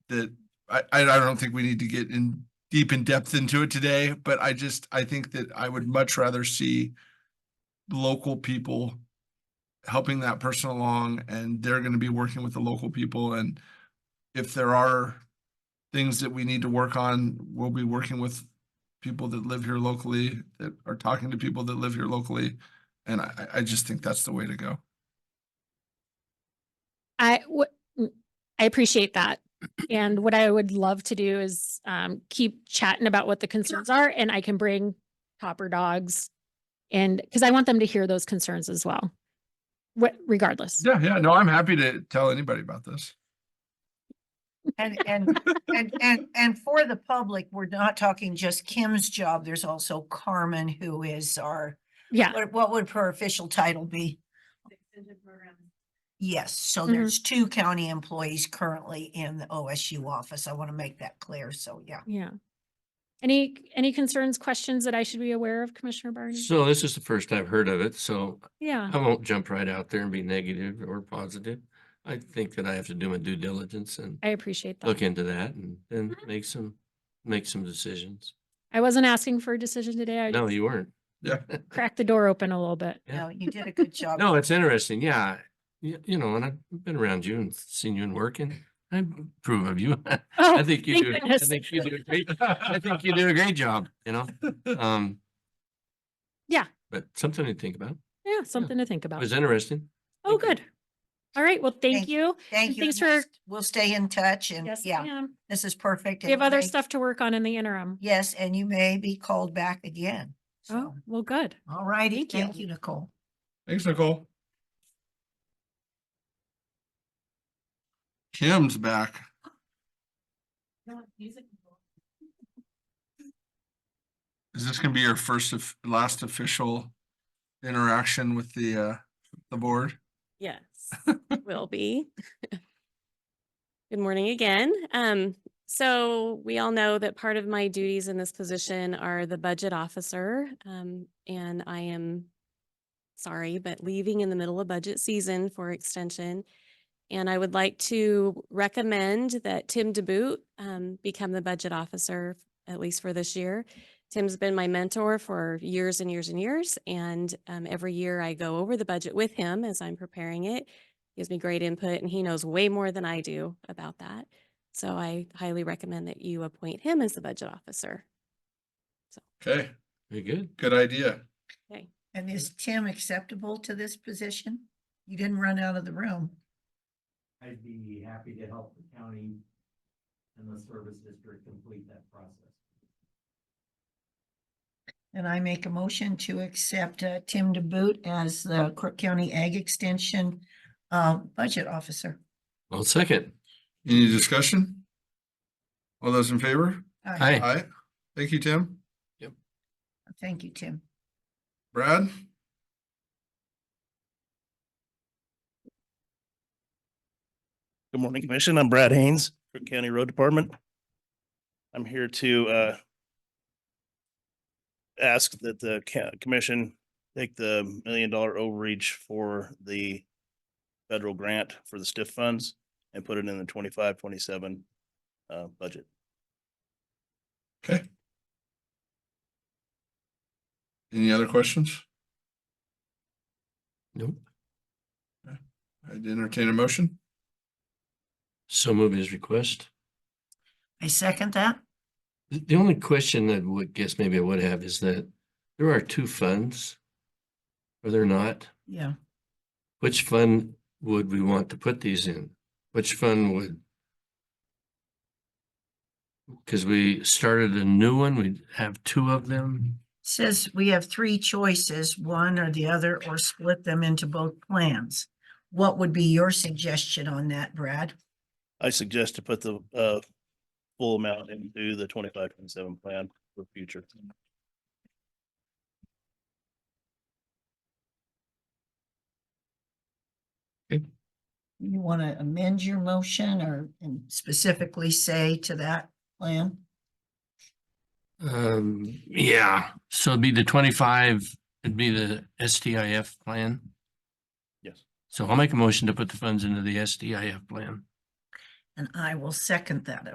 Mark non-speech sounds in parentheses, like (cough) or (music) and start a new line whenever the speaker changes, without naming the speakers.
that I, I don't think we need to get in deep in depth into it today, but I just, I think that I would much rather see local people helping that person along and they're gonna be working with the local people and if there are things that we need to work on, we'll be working with people that live here locally, that are talking to people that live here locally. And I, I- I just think that's the way to go.
I w- m- I appreciate that. And what I would love to do is um keep chatting about what the concerns are and I can bring copper dogs. And because I want them to hear those concerns as well. What regardless,
Yeah, yeah, no, I'm happy to tell anybody about this.
(laughs)
And, and, and, and, and for the public, we're not talking just Kim's job. There's also Carmen, who is our,
yeah,
what, what would her official title be? Yes, so
Mhm.
there's two county employees currently in the OSU office. I want to make that clear. So, yeah.
yeah. Any any concerns, questions that I should be aware of, Commissioner Barney?
So this is the first I've heard of it, so
Yeah,
I won't jump right out there and be negative or positive. I think that I have to do my due diligence and
I appreciate that.
look into that and then
Mhm.
make some, make some decisions.
I wasn't asking for a decision today. I
No,
just
you weren't.
Yeah.
cracked the door open a little bit.
Yeah.
No, you did
(laughs)
a good job.
No, it's interesting, yeah. You, you know, and I've been around you and seen you and working. I approve of you. (laughs) I
Oh,
think you
thank
do, I
goodness.
think you do, a great- I think you do a great job, you
(laughs)
know? Um.
Yeah.
But something to think about.
yeah, something to think
It
about.
was interesting.
Oh,
thank you.
good. All right, well, thank
Thank-
you.
Thank you.
thanks
and we'll
for-
st- We'll stay in touch and
Yes,
yeah,
ma'am.
this is perfect.
We have
and
other
may-
stuff to work on in the interim.
Yes, and you may be called back again.
Oh,
So,
well, good.
all righty.
Oh. thank you.
Thank you, Nicole.
Thanks, Nicole. Kim's back. Is this gonna be your first of, last official interaction with the, uh, the board?
Yes, will be. Good morning again. Um, so we all know that part of my duties in this position are the budget officer. Um, and I am sorry, but leaving in the middle of budget season for extension. And I would like to recommend that Tim DeBoot um become the budget officer, at least for this year. Tim's been my mentor for years and years and years, and um, every year I go over the budget with him as I'm preparing it. Gives me great input, and he knows way more than I do about that. So I highly recommend that you appoint him as the budget officer.
Okay,
Very good.
good idea.
And is Tim acceptable to this position? You didn't run out of the room.
I'd be happy to help the county and the service district complete that process.
And I make a motion to accept uh, Tim DeBoot as the Crook County Ag Extension uh, Budget Officer.
Well, second.
Any discussion? All those in favor?
Aye.
Hi.
Aye. Thank you, Tim.
Thank you, Tim.
Brad?
Good morning, Commission. I'm Brad Haynes, Cook County Road Department. I'm here to uh ask that the ca- commission take the million dollar overreach for the federal grant for the stiff funds and put it in the 25-27 uh budget.
Okay. Any other questions?
Nope.
I'd entertain a motion.
So move his request.
I second that.
The the only question that would guess maybe I would have is that there are two funds. Or there not,
Yeah.
which fund would we want to put these in? Which fund would? Because we started a new one, we have two of them.
Says we have three choices, one or the other, or split them into both plans. What would be your suggestion on that, Brad?
I suggest to put the uh full amount into the 25-27 plan for future.
You want to amend your motion or and specifically say to that plan?
Um, yeah, so it'd be the twenty-five, it'd be the STIF plan.
Yes.
So I'll make a motion to put the funds into the STIF plan.
And I will second that